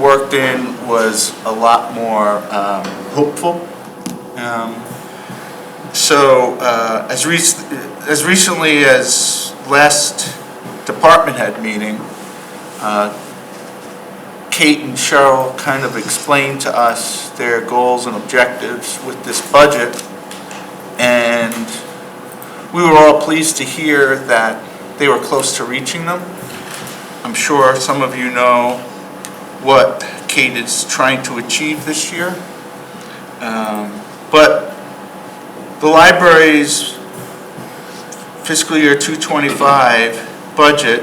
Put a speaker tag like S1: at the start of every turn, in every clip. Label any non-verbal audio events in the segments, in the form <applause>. S1: worked in was a lot more um, hopeful. Um, So uh, as rec- as recently as last department head meeting, uh, Kate and Cheryl kind of explained to us their goals and objectives with this budget. And we were all pleased to hear that they were close to reaching them. I'm sure some of you know what Kate is trying to achieve this year. Um, But the library's fiscal year 225 budget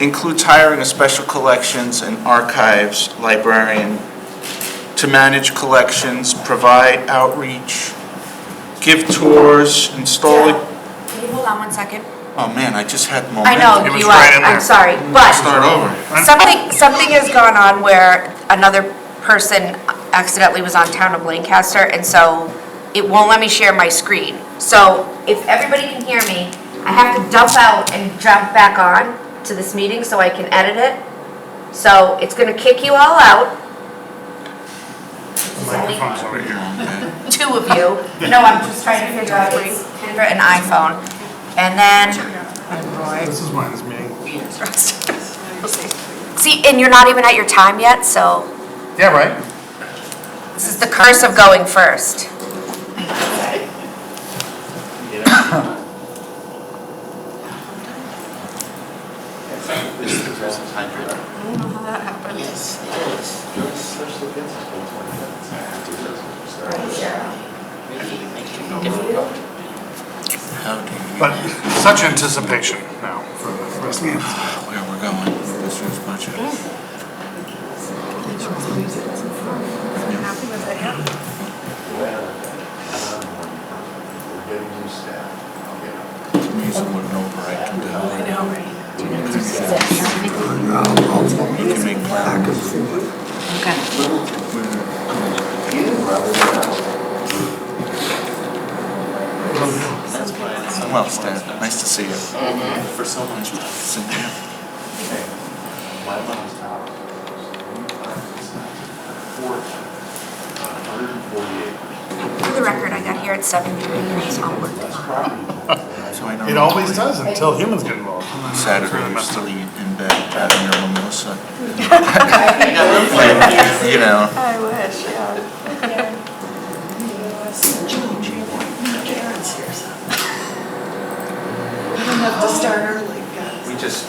S1: includes hiring a special collections and archives librarian to manage collections, provide outreach, give tours, installing,
S2: Can you hold on one second?
S1: oh man, I just had
S2: I
S1: momentum.
S2: know,
S3: It was
S2: you
S3: right
S2: are,
S3: in
S2: I'm
S3: there. Mm.
S2: sorry, but
S1: Start over.
S2: something, something has gone on where another person accidentally was on town of Lancaster, and so it won't let me share my screen. So if everybody can hear me, I have to dump out and jump back on to this meeting so I can edit it. So it's gonna kick you all out,
S3: Microphone's over here.
S2: two of you. No, I'm just trying to figure out, it's Kendra and iPhone. And then,
S3: This is mine, this meeting.
S2: <laughs> see, and you're not even at your time yet, so.
S3: Yeah, right?
S2: This is the curse of going first.
S4: This is the present hundred. I don't know how that happened. Yes, it is. Yes, there's the bits of both one minutes. Mickey, Mickey, no, no, no.
S1: How do you-
S3: But such anticipation now for the for this meeting.
S1: where we're going with this year's budget.
S4: We're getting new staff. I'll get 'em.
S1: Music would an override to do. You can make plans.
S4: That's why it's so
S1: Well,
S4: much more
S1: Stan, nice to see you.
S4: expensive For so much less.
S1: Cynthia.
S4: My mom's house. Four, hundred and forty acres.
S2: For the record, I got here at seven thirty, so I'll work
S4: That's
S2: tomorrow.
S4: property.
S1: So I
S3: It
S1: know
S3: always does until humans get involved. And then it's
S1: Saturday
S3: really
S1: you're
S3: messed up.
S1: still eating in bed having your
S4: <laughs>
S1: mimosa.
S4: I got room for it.
S1: You know,
S5: I wish, yeah.
S6: Karen's here, so. We don't have to start early, guys.
S4: We just,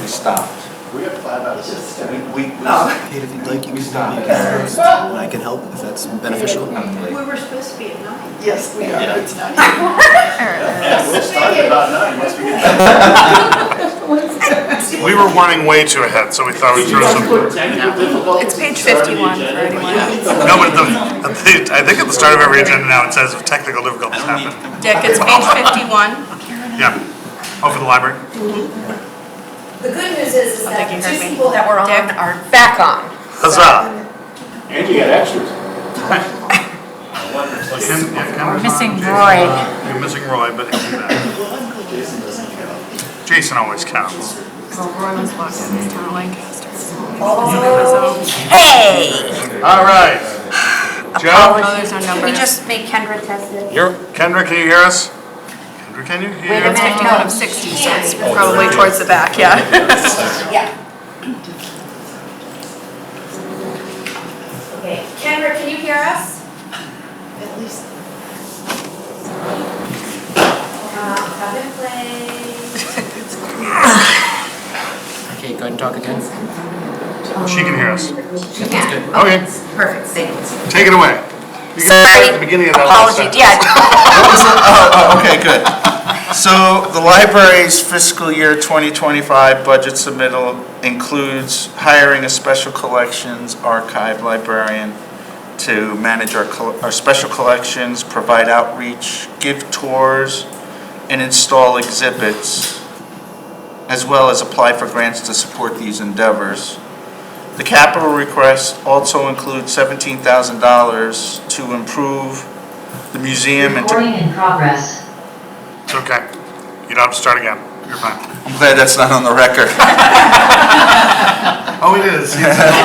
S4: we stopped. We have five out of six. We, we, we
S7: Kate, if you'd like, you
S4: We
S7: can
S4: stopped.
S7: stop. I can help if that's beneficial.
S6: We were supposed to be at nine. Yes, we are, it's not
S4: Yeah, we'll start at about nine, once we get
S3: We were running way too ahead, so we thought we'd throw some.
S4: back.
S5: It's page 51 for anyone.
S3: No, but the, at the- I think at the start of every agenda now, it says if technical difficulties happen.
S5: Dick, it's page <laughs> 51.
S3: Yeah. Oh, for the library?
S2: The good news is, is that
S5: Something you
S2: the
S5: heard
S2: two
S5: me.
S2: people that were on
S5: Dick?
S2: are back on.
S3: Huzzah.
S4: And you got extras.
S3: Ken- yeah, Ken was
S5: Missing
S3: on. Jason- Uh,
S2: Roy.
S3: You're missing Roy, but he'll be back. Jason always counts.
S2: Hey!
S3: All right. Joe?
S5: Oh, there's no
S2: Can we
S5: number.
S2: just make Kendra test it?
S3: You're, Kendra, can you hear us? Kendra, can you hear?
S2: Wait a
S3: us?
S5: It's 51 of 60, so it's probably towards the back, yeah.
S2: Yeah. Oh, Okay, Kendra, can you hear us?
S6: At least
S2: Uh, have it play.
S7: Kate, go ahead and talk again.
S3: She can hear us.
S2: She can.
S3: Okay,
S2: Perfect, thanks.
S3: take it away. You got it at the beginning of that last
S2: Apology,
S3: sentence.
S2: <laughs> yeah.
S1: Oh, okay, good. So the library's fiscal year 2025 budget submittal includes hiring a special collections archive librarian to manage our, col- our special collections, provide outreach, give tours, and install exhibits, as well as apply for grants to support these endeavors. The capital request also includes $17,000 to improve the museum and to
S8: Recording in progress.
S3: It's okay. You don't have to start again. You're fine.
S1: <laughs> I'm glad that's not on the record. Oh, it is.